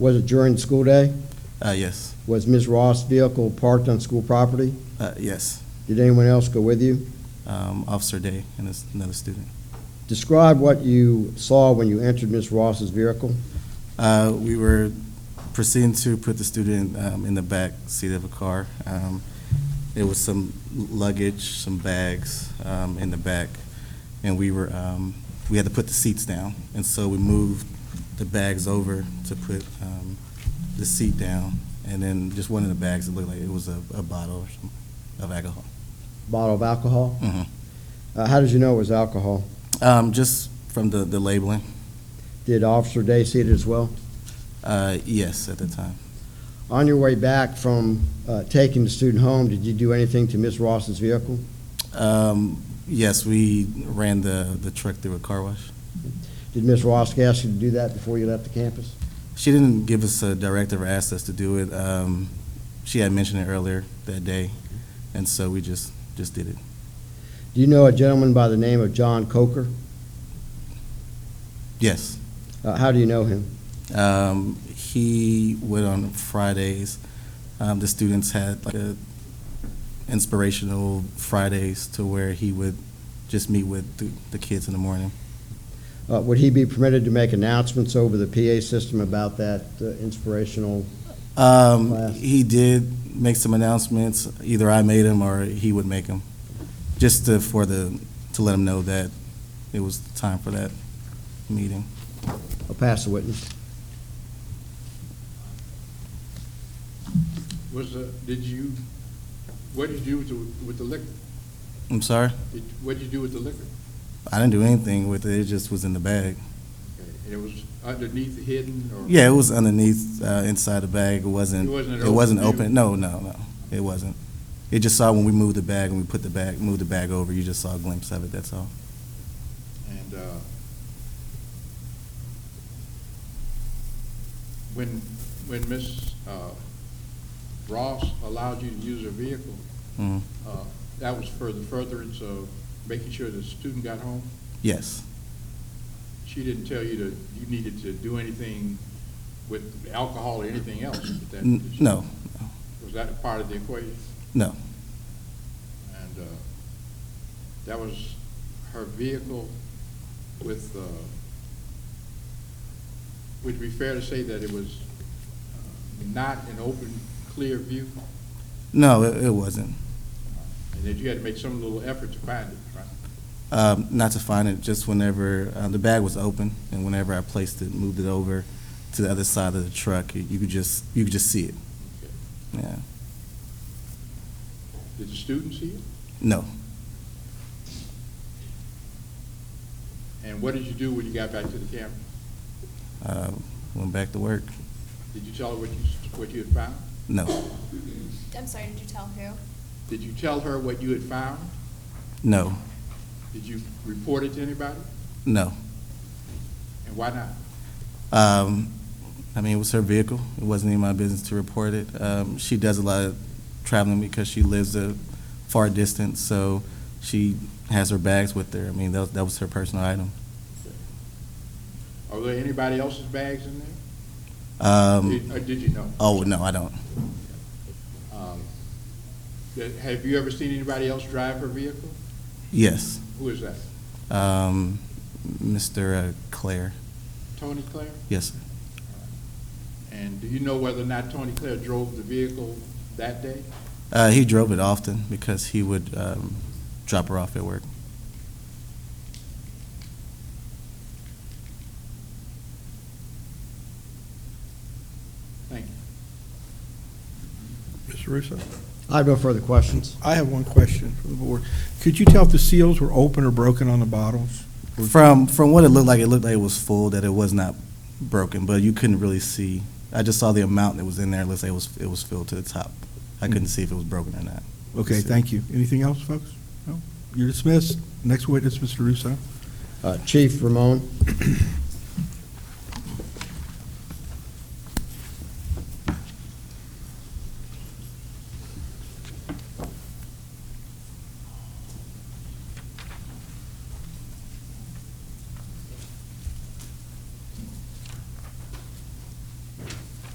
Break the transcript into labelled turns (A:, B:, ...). A: Was it during the school day?
B: Uh, yes,
A: Was Ms. Ross' vehicle parked on school property?
B: uh, yes.
A: Did anyone else go with you?
B: Um, Officer Day and this- another student.
A: Describe what you saw when you entered Ms. Ross's vehicle.
B: Uh, we were proceeding to put the student um, in the back seat of a car. Um, there was some luggage, some bags um, in the back, and we were um, we had to put the seats down, and so we moved the bags over to put um, the seat down, and then just one of the bags it looked like it was a, a bottle or something of alcohol.
A: Bottle of alcohol?
B: Mhm.
A: Uh, How did you know it was alcohol?
B: Um, just from the, the labeling,
A: Did Officer Day see it as well?
B: uh, yes, at the time.
A: On your way back from uh, taking the student home, did you do anything to Ms. Ross's vehicle?
B: Um, yes, we ran the, the truck through a car wash.
A: Did Ms. Ross ask you to do that before you left the campus?
B: She didn't give us a directive or ask us to do it. Um, she had mentioned it earlier that day, and so we just, just did it.
A: Do you know a gentleman by the name of John Coker?
B: Yes.
A: Uh, How do you know him?
B: Um, he went on Fridays. Um, the students had like a inspirational Fridays to where he would just meet with the, the kids in the morning.
A: Uh, Would he be permitted to make announcements over the PA system about that uh, inspirational?
B: Um,
A: Class.
B: he did make some announcements. Either I made them or he would make them, just to, for the to let them know that it was time for that meeting.
A: I'll pass the witness.
C: Was, uh, did you, what did you do with the- with the liquor?
B: I'm sorry,
C: Did- What did you do with the liquor?
B: I didn't do anything with it. It just was in the bag.
C: And it was underneath the hidden or?
B: Yeah, it was underneath, uh, inside the bag. It wasn't.
C: It wasn't an
B: It wasn't
C: open
B: open.
C: view?
B: No, no, no. It wasn't. It just saw when we moved the bag and we put the bag, moved the bag over. You just saw a glimpse of it. That's all.
C: And uh, when, when Ms. uh, Ross allowed you to use her vehicle,
B: Mhm.
C: uh, that was for the furtherance of making sure the student got home?
B: Yes.
C: She didn't tell you to, you needed to do anything with alcohol or anything else? with that,
B: N-
C: did she?
B: no,
C: Was that a part of the equation?
B: no.
C: And uh, that was her vehicle with, uh, would it be fair to say that it was uh, not an open, clear view?
B: No, it, it wasn't.
C: And that you had to make some little effort to find it, right?
B: Um, not to find it, just whenever uh, the bag was open, and whenever I placed it, moved it over to the other side of the truck, you, you could just you could just see it.
C: Okay.
B: Yeah,
C: Did the students see it?
B: no.
C: And what did you do when you got back to the camp?
B: Uh, went back to work.
C: Did you tell her what you, what you had found?
B: No,
D: I'm sorry, did you tell who?
C: Did you tell her what you had found?
B: no,
C: Did you report it to anybody?
B: no.
C: And why not?
B: Um, I mean, it was her vehicle. It wasn't in my business to report it. Um, she does a lot of traveling because she lives a far distance, so she has her bags with her. I mean, that was, that was her personal item.
C: Are there anybody else's bags in there?
B: Um,
C: Did- Or did you know?
B: oh no, I don't.
C: Um, that- Have you ever seen anybody else drive her vehicle?
B: Yes.
C: Who is that?
B: Um, Mr. uh, Claire,
C: Tony Clare?
B: yes, sir.
C: And do you know whether or not Tony Clare drove the vehicle that day?
B: Uh, he drove it often because he would um, drop her off at work.
C: Thank you.
E: Mr. Russo?
A: I have no further questions.
E: I have one question for the board. Could you tell if the seals were open or broken on the bottles?
B: From from what it looked like, it looked like it was full, that it was not broken, but you couldn't really see. I just saw the amount that was in there. Let's say it was it was filled to the top. I couldn't see if it was broken or not.
E: Hmm. Okay, thank you. Anything else, folks? No? You're dismissed. Next witness, Mr. Russo.
A: Uh, Chief Ramon?